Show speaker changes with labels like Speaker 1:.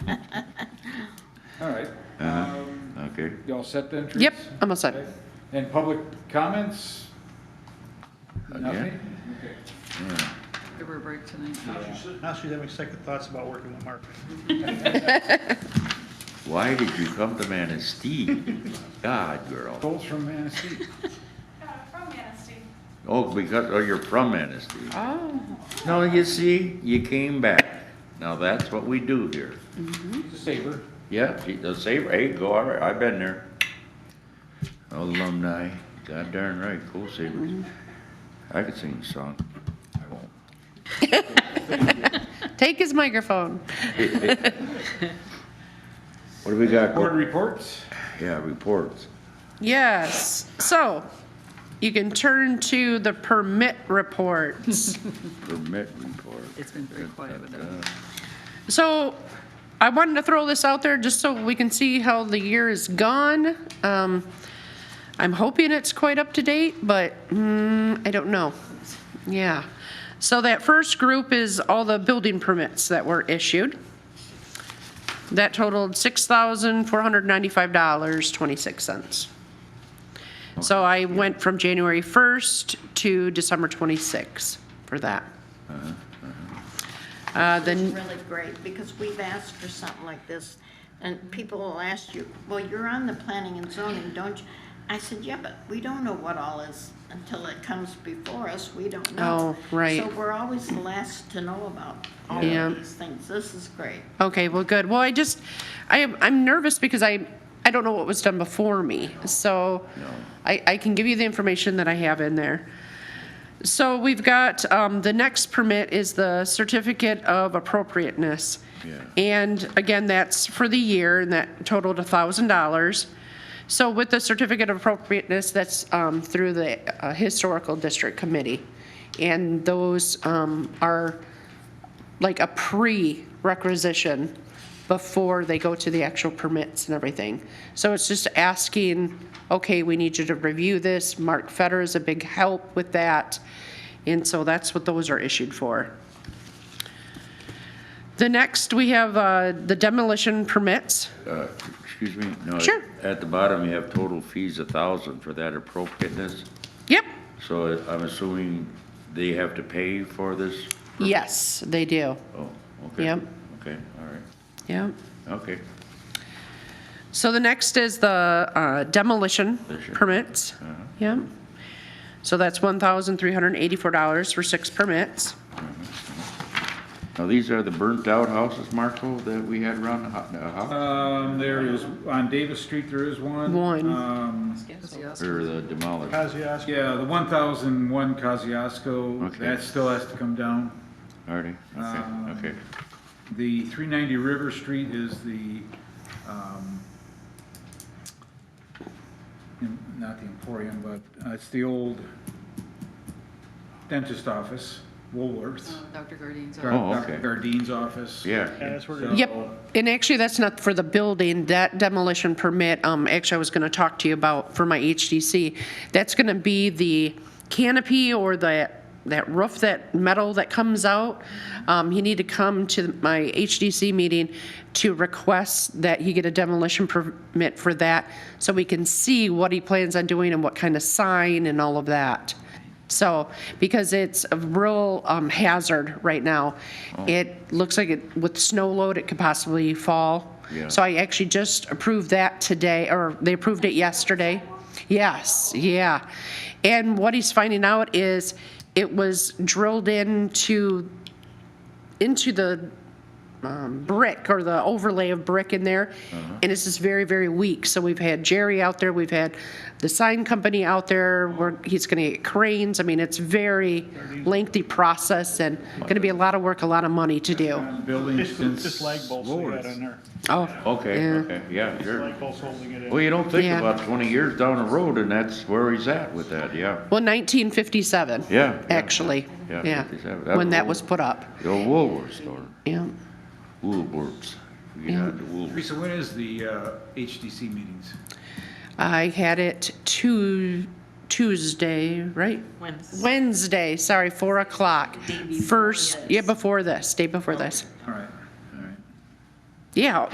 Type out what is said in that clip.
Speaker 1: All right.
Speaker 2: Uh-huh.
Speaker 1: Um,
Speaker 2: Okay.
Speaker 1: You all set then, Teresa?
Speaker 3: Yep, I'm all set.
Speaker 1: Okay. And public comments? Uh,
Speaker 2: Again?
Speaker 1: Nothing?
Speaker 4: Give her a break tonight.
Speaker 5: Now she's having second thoughts about working with Mark.
Speaker 2: Why did you come to Manistee? God, girl.
Speaker 1: Goals from Manistee?
Speaker 6: Uh, From Manistee.
Speaker 2: Oh, because, oh, you're from Manistee.
Speaker 3: Oh,
Speaker 2: No, you see, you came back. Now that's what we do here.
Speaker 1: Saber.
Speaker 2: Yeah, gee, the same, hey, go, all right, I've been there. Alumni, god darn right, cool Sabres. I could sing a song. I won't.
Speaker 3: take his microphone.
Speaker 2: What do we got?
Speaker 1: Board
Speaker 2: go-
Speaker 1: reports?
Speaker 2: Yeah, reports.
Speaker 3: Yes, so you can turn to the permit reports.
Speaker 2: Permit report.
Speaker 4: It's been very quiet with that.
Speaker 3: So I wanted to throw this out there just so we can see how the year is gone. Um, I'm hoping it's quite up to date, but mm, I don't know. Yeah. So that first group is all the building permits that were issued. That totaled $6,495.26. So I went from January 1st to December 26th for that. Uh, Then
Speaker 7: really great, because we've asked for something like this, and people will ask you, well, you're on the planning and zoning, don't you? I said, yeah, but we don't know what all is until it comes before us, we don't know.
Speaker 3: Oh, right.
Speaker 7: So we're always the last to know about all
Speaker 3: Yeah.
Speaker 7: of these things, this is great.
Speaker 3: Okay, well, good. Well, I just, I am, I'm nervous because I, I don't know what was done before me, so I, I can give you the information that I have in there. So we've got, um, the next permit is the certificate of appropriateness.
Speaker 2: Yeah.
Speaker 3: And again, that's for the year, and that totaled a thousand dollars. So with the certificate of appropriateness, that's, um, through the uh, Historical District Committee. And those, um, are like a pre-requisition before they go to the actual permits and everything. So it's just asking, okay, we need you to review this. Mark Fetter is a big help with that. And so that's what those are issued for. The next, we have uh, the demolition permits.
Speaker 2: Uh, Excuse me? No,
Speaker 3: Sure.
Speaker 2: At the bottom, you have total fees a thousand for that appropriateness.
Speaker 3: Yep,
Speaker 2: So I'm assuming they have to pay for this?
Speaker 3: yes, they do.
Speaker 2: Oh, okay.
Speaker 3: Yep.
Speaker 2: Okay, all right,
Speaker 3: Yep.
Speaker 2: okay.
Speaker 3: So the next is the uh, demolition
Speaker 2: Demolition.
Speaker 3: permits. Yep. So that's $1,384 for six permits.
Speaker 2: Now, these are the burnt-out houses, Marco, that we had around the hou- the house,
Speaker 1: Um, there is, on Davis Street, there is one.
Speaker 3: One.
Speaker 1: Um,
Speaker 4: That's the awesome.
Speaker 2: or the demolished?
Speaker 5: Kosciuszko.
Speaker 1: yeah, the one thousand one Kosciuszko,
Speaker 2: Okay.
Speaker 1: that still has to come down.
Speaker 2: Already,
Speaker 1: Um,
Speaker 2: okay, okay.
Speaker 1: The three ninety River Street is the, um, em- not the Emporium, but uh, it's the old dentist office, Woolworths.
Speaker 4: Dr. Gardine's.
Speaker 1: Gar-
Speaker 2: Oh,
Speaker 1: Dr.
Speaker 2: okay.
Speaker 1: Gardine's office.
Speaker 5: Yeah,
Speaker 2: Yeah,
Speaker 5: that's where.
Speaker 1: So-
Speaker 3: Yep, and actually, that's not for the building, that demolition permit, um, actually, I was gonna talk to you about for my HDC. That's gonna be the canopy or that, that roof, that metal that comes out. Um, you need to come to my HDC meeting to request that he get a demolition permit for that, so we can see what he plans on doing and what kind of sign and all of that. So, because it's a real um, hazard right now. It looks like it, with snow load, it could possibly fall.
Speaker 2: Yeah.
Speaker 3: So I actually just approved that today, or they approved it yesterday. Yes, yeah. And what he's finding out is it was drilled into, into the um, brick or the overlay of brick in there,
Speaker 2: Uh-huh.
Speaker 3: and it's just very, very weak. So we've had Jerry out there, we've had the sign company out there, where he's gonna get cranes. I mean, it's very lengthy process and gonna be a lot of work, a lot of money to do.
Speaker 1: Building
Speaker 5: Just,
Speaker 1: since.
Speaker 5: just lag bolts they got
Speaker 1: Woolworths.
Speaker 5: on there.
Speaker 3: Oh,
Speaker 2: okay,
Speaker 3: Yeah.
Speaker 2: okay, yeah,
Speaker 5: Just
Speaker 2: sure.
Speaker 5: lag bolts holding it in.
Speaker 2: Well, you don't think
Speaker 3: Yeah.
Speaker 2: about twenty years down the road, and that's where he's at with that, yeah.
Speaker 3: well, nineteen fifty-seven.
Speaker 2: Yeah, yeah.
Speaker 3: Actually,
Speaker 2: Yeah,
Speaker 3: yeah,
Speaker 2: 57. That
Speaker 3: when that was
Speaker 2: was-
Speaker 3: put up,
Speaker 2: The old Woolworths store,
Speaker 3: yeah.
Speaker 2: Woolworths. You get
Speaker 3: Yeah.
Speaker 2: out to Woolworths.
Speaker 1: Teresa, when is the uh, HDC meetings?
Speaker 3: I had it Tu- Tuesday, right?
Speaker 4: Wednesday.
Speaker 3: Wednesday, sorry, four o'clock. First, yeah, before this, day before this.
Speaker 1: All right, all right.
Speaker 3: Yeah,